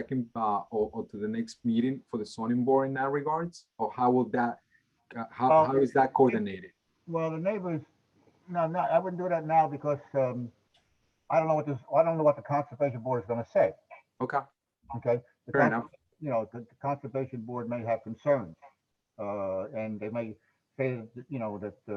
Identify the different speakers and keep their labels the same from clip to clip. Speaker 1: second uh, or, or to the next meeting for the zoning board in that regards? Or how will that, uh, how,
Speaker 2: Well-
Speaker 1: how is that coordinated?
Speaker 2: Well, the neighbors, no, no, I wouldn't do that now because, um, I don't know what this, I don't know what the conservation board is gonna say,
Speaker 1: Okay,
Speaker 2: okay? The
Speaker 1: fair
Speaker 2: con-
Speaker 1: enough.
Speaker 2: You know, the the conservation board may have concerns, uh, and they may say, that, you know, that, uh,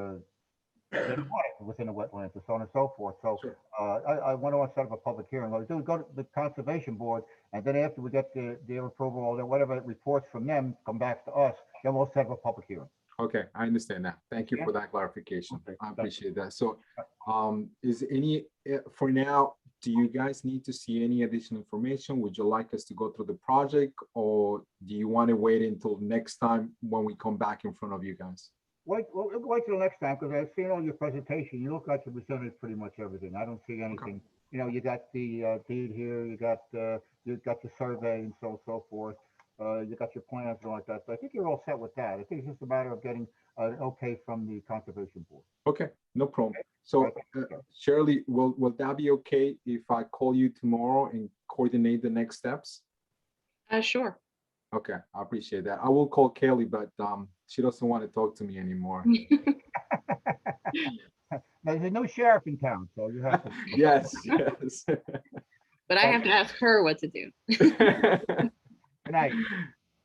Speaker 2: they don't want it within the wetlands and so on and so forth, so,
Speaker 1: Sure.
Speaker 2: uh, I, I want to set up a public hearing, What we do is go to the conservation board, and then after we get the, their approval, or whatever reports from them, come back to us, then we'll set up a public hearing.
Speaker 1: Okay, I understand that. Thank you for that clarification.
Speaker 2: Okay,
Speaker 1: I
Speaker 2: that's-
Speaker 1: appreciate that. So um, is any, eh, for now, do you guys need to see any additional information? Would you like us to go through the project? Or do you want to wait until next time when we come back in front of you guys?
Speaker 2: Wait, well, we'll wait till next time, because I've seen all your presentation. You look like you presented pretty much everything. I don't see anything. You know, you got the uh, deed here, you got, uh, you got the survey and so, so forth. Uh, You got your plans and all like that. So I think you're all set with that. I think it's just a matter of getting an okay from the conservation board.
Speaker 1: Okay, no problem. So
Speaker 2: Okay.
Speaker 1: uh, Shirley, will, will that be okay if I call you tomorrow and coordinate the next steps?
Speaker 3: Uh, sure.
Speaker 1: Okay, I appreciate that. I will call Kelly, but um, she doesn't want to talk to me anymore.
Speaker 2: Now, there's a new sheriff in town, so you have to.
Speaker 1: Yes, yes.
Speaker 3: But I have to ask her what to do.
Speaker 2: Good night.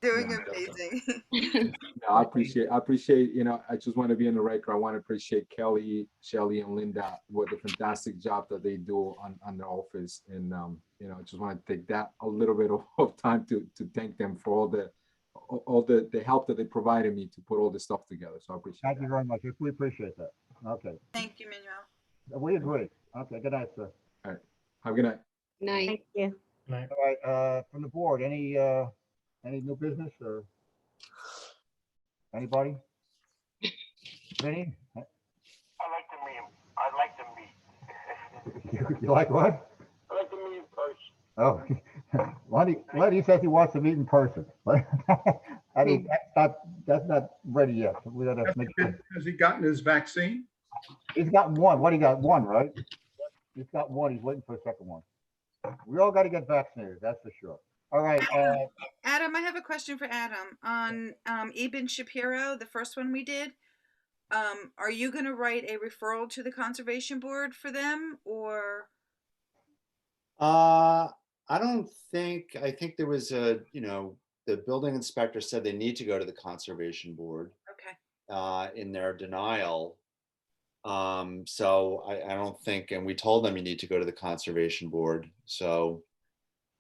Speaker 4: Doing
Speaker 1: Yeah, definitely.
Speaker 4: amazing.
Speaker 1: No, I appreciate, I appreciate, you know, I just want to be in the record. I want to appreciate Kelly, Shelley and Linda with the fantastic job that they do on, on the office. And, um, you know, I just want to take that a little bit of, of time to, to thank them for all the, all all the, the help that they provided me to put all this stuff together. So I appreciate
Speaker 2: Thank you
Speaker 1: that.
Speaker 2: very much. We appreciate that. Okay,
Speaker 4: Thank you, Manuel.
Speaker 2: we agree. Okay, good night, sir.
Speaker 1: Have a good night.
Speaker 3: Nice.
Speaker 5: Thank you.
Speaker 2: All right, uh, from the board, any, uh, any new business or? Anybody? Vinny?
Speaker 6: I like to meet him. I'd like to meet.
Speaker 2: You you like what?
Speaker 6: I like to meet in person.
Speaker 2: Oh, Lenny, Lenny says he wants to meet in person. I mean, that's not, that's not ready yet. We gotta make sure.
Speaker 7: Has he gotten his vaccine?
Speaker 2: He's got one. What, he got one, right? He's got one. He's waiting for a second one. We all gotta get vaccinated, that's for sure. All right, uh,
Speaker 4: Adam, I have a question for Adam on um, Eben Shapiro, the first one we did. Um, are you going to write a referral to the conservation board for them, or
Speaker 8: Uh, I don't think, I think there was a, you know, the building inspector said they need to go to the conservation board,
Speaker 4: okay?
Speaker 8: uh, in their denial. Um, so I, I don't think, and we told them you need to go to the conservation board, so.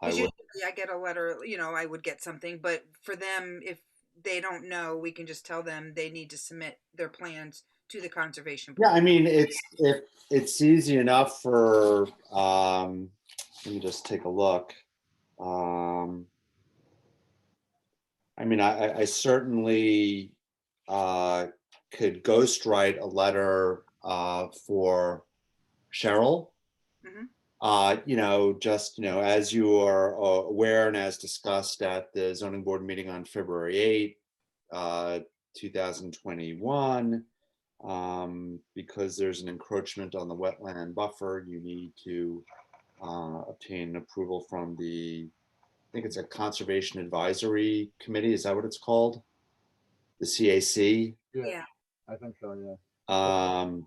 Speaker 8: I
Speaker 4: 'Cause
Speaker 8: would,
Speaker 4: usually I get a letter, you know, I would get something, but for them, if they don't know, we can just tell them they need to submit their plans to the conservation board.
Speaker 8: yeah, I mean, it's, it, it's easy enough for, um, let me just take a look. Um. I mean, I, I- I certainly, uh, could ghostwrite a letter uh, for Cheryl.
Speaker 4: Mhm.
Speaker 8: Uh, you know, just, you know, as you are uh, aware and as discussed at the zoning board meeting on February 8, uh, 2021, um, because there's an encroachment on the wetland buffer, you need to uh, obtain approval from the, I think it's a Conservation Advisory Committee, is that what it's called? The CAC?
Speaker 4: Yeah.
Speaker 2: I think so, yeah.
Speaker 8: Um,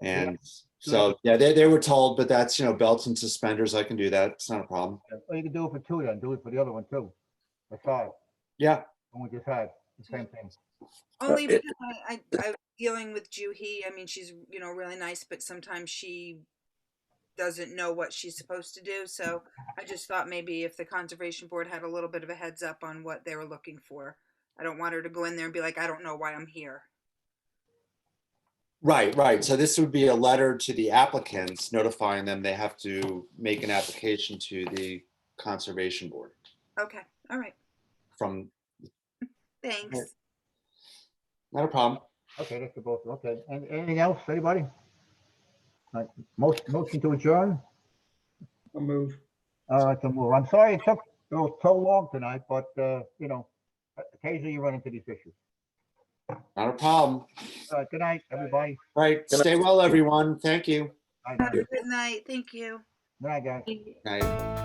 Speaker 8: and
Speaker 2: so-
Speaker 8: so, yeah, they, they were told, but that's, you know, belts and suspenders, I can do that, it's not a problem.
Speaker 2: Or you can do it for two then, do it for the other one too. That's all,
Speaker 8: Yeah,
Speaker 2: the one we just had, the same thing.
Speaker 4: Only
Speaker 8: Uh, it-
Speaker 4: because I, I, I was dealing with Juhi. I mean, she's you know really nice, but sometimes she doesn't know what she's supposed to do. So I just thought maybe if the conservation board had a little bit of a heads up on what they were looking for, I don't want her to go in there and be like, I don't know why I'm here.
Speaker 8: right, right, so this would be a letter to the applicants notifying them they have to make an application to the Conservation Board
Speaker 4: Okay, all right,
Speaker 8: from,
Speaker 4: thanks.
Speaker 8: not a problem.
Speaker 2: Okay, that's the both, okay. And anything else, anybody? Like, most, motion to adjourn?
Speaker 7: I'll move.
Speaker 2: All right, then, well, I'm sorry it took so so long tonight, but, uh, you know, occasionally you run into these issues.
Speaker 8: Not a problem.
Speaker 2: All right, good night, everybody.
Speaker 8: Right. Stay well, everyone. Thank you.
Speaker 2: Good
Speaker 4: Have
Speaker 2: night,
Speaker 4: a good night. Thank you.
Speaker 2: Good night, guys.
Speaker 8: Night.